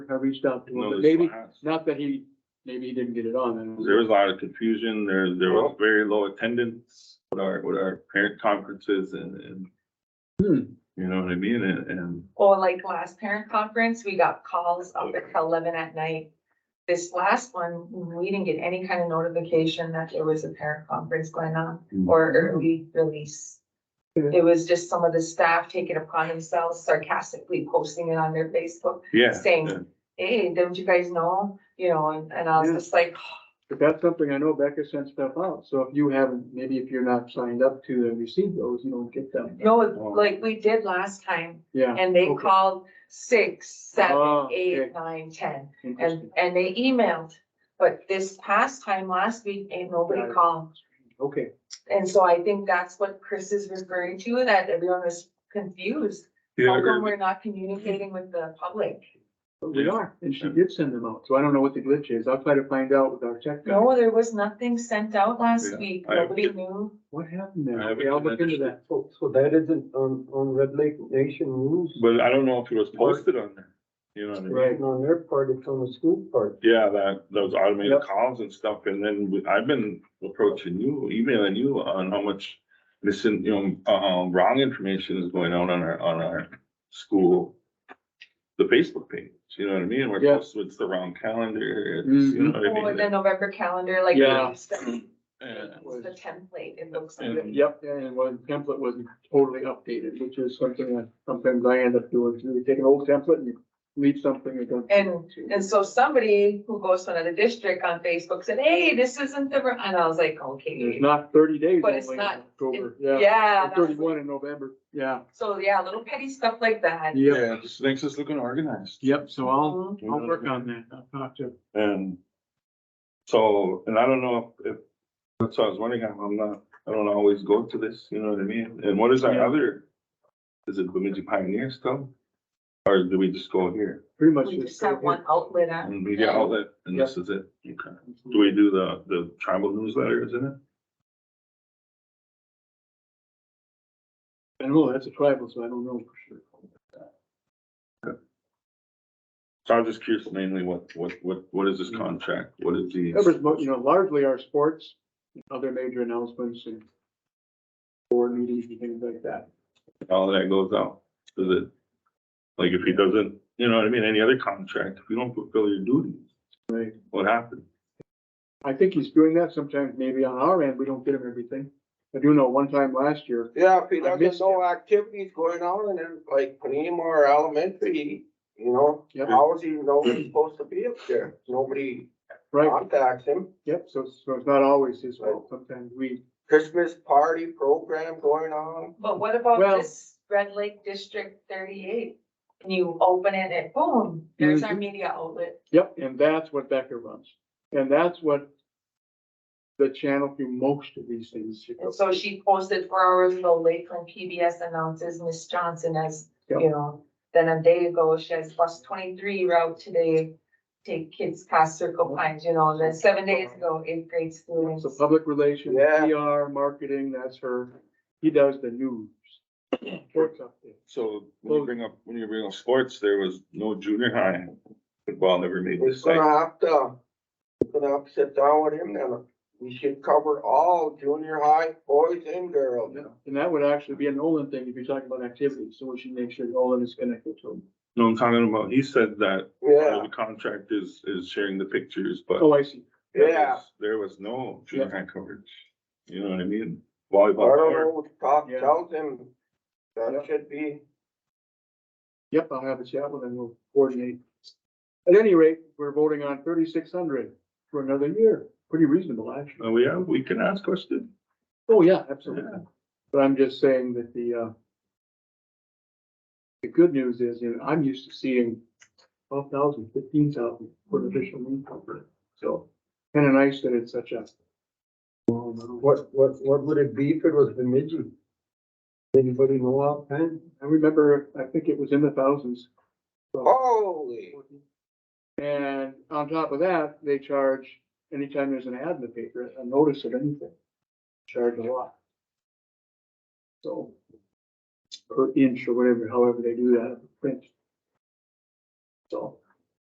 I reached out to You know, him, but there's maybe, lots- not that he, maybe he didn't get it on. and- There was a lot of confusion. There, there was very low attendance with our, with our parent conferences and, and, Hmm, you know what I mean? And, and Or like last parent conference, we got calls up until eleven at night. This last one, we didn't get any kind of notification that there was a parent conference going on or early release. It was just some of the staff taking upon themselves sarcastically posting it on their Facebook, yeah. Same. yeah. hey, don't you guys know? You know, and, and I was Yeah. just like, But that's something I know Becca sent stuff out, so if you haven't, maybe if you're not signed up to and receive those, you don't get them. no, like we did last time. Yeah. And they Okay. called six, Oh, seven, okay. eight, nine, ten. And, interesting. and they emailed, but this past time last week, ain't Got nobody it. called. Okay, And so I think that's what Chris is referring to, that everyone was confused. Yeah, How come or- we're not communicating with the public? but we Yeah. are, and she did send them out, so I don't know what the glitch is. I'll try to find out with our tech guy. No, there was nothing sent out last Yeah, week. I- Nobody knew. What happened there? I haven't Okay, I'll look into been- that. So, so that isn't on, on Red Lake Nation rules? But I don't know if it was posted on there, you know what I mean? Right. On their part, it's on the school part. Yeah, that, those automated Yep. calls and stuff, and then we- I've been approaching you, emailing you on how much missing, you know, um, wrong information is going on on our, on our school. The Facebook page, you know what I mean? We're Yeah. Mm-hmm. posting, it's the wrong calendar, it's, you know what I Or the mean? November calendar, like. Yeah. it's The Yeah. it's the template, it looks And- like. Yep, and one template wasn't totally updated, which is something that sometimes I end up doing, too. you take an old template and you leave something and don't. And so somebody who goes to another district on Facebook said, hey, this isn't the, re-" and I was like, okay. There's not thirty days But it's only in not- October, yeah. Yeah. Or that's- Thirty-one in November, yeah. So, yeah, little petty stuff like that. Yep, Yeah, it just makes us looking organized. yep, so I'll, Mhm. I'll work on that, I'll talk to. And so, and I don't know if, if, that's what I was wondering, I'm I'm not, I don't always go to this, you know what I mean? And what is our Yeah. other, is it Bemidji Pioneer still? Or do we just go here Pretty much. We just just have one outlet on. and media outlet and this is it? Okay. Do we do the, the tribal newsletter, isn't it? I don't know, oh, that's a tribal, so I don't know for sure. So I'm just curious mainly what, what, what, what is this Mm. contract? What is the? Covers, mo- you know, largely our sports, and other major announcements and board meetings and things like that. all that goes out, does it? Like if he doesn't, you know what I mean, any other contract, if you don't fulfill your duties. Right. What happens? I think he's doing that sometimes, maybe on our end, we don't get him everything. I do know one time last year, Yeah, if he I missed doesn't know activities going on and then like Panema or elementary, you know, Yep. how is he know he's supposed to be up there? Nobody right, contacts him. yep, so, so it's not always his fault, Right. sometimes we, Christmas party program going on. But what about Well- this Red Lake District thirty-eight? And you open it and boom, there's our Mhm. media outlet. yep, and that's what Becker runs. And that's what the channel through most of these things. And so she posted four hours ago, Lakeland PBS announces Miss Johnson as, Yep. you know, then a day ago, she has bus twenty-three route today. Take kids past Circle Pines, you know, and then seven days ago, eighth grade students. So public relations, Yeah. PR, marketing, that's her, he does the news. Sports update. So when you bring up, when you bring up sports, there was no junior high football never made We're this site. gonna have to, we're gonna have to sit down with him then. We should cover all junior high boys and girls. And that would actually be an Olin thing if you're talking about activities, so we should make sure Olin is connected to him. No, I'm talking about, he said that part of Yeah, the contract is, is sharing the pictures, but Oh, I see, there yeah. was- there was no junior high coverage. You know what I mean? Volleyball I don't court, know what to talk, Yeah. tell him that Yep. should be. yep, I'll have a chat with him, we'll coordinate. At any rate, we're voting on thirty-six hundred for another year, pretty reasonable, actually. Oh, yeah, we can ask questions. Oh, yeah, absolutely. But I'm just saying that the, uh, the good news is, you know, I'm used to seeing 12,000, 15,000 for an official meeting. So kind of nice that it's such a. What, what, what would it be if it was Bemidji? Anybody know offhand? I remember, I think it was in the thousands. Holy, And on top of that, they charge, anytime there's an ad in the paper, a notice of anything, charge a lot. So, per inch or whatever, however they do that, print. So,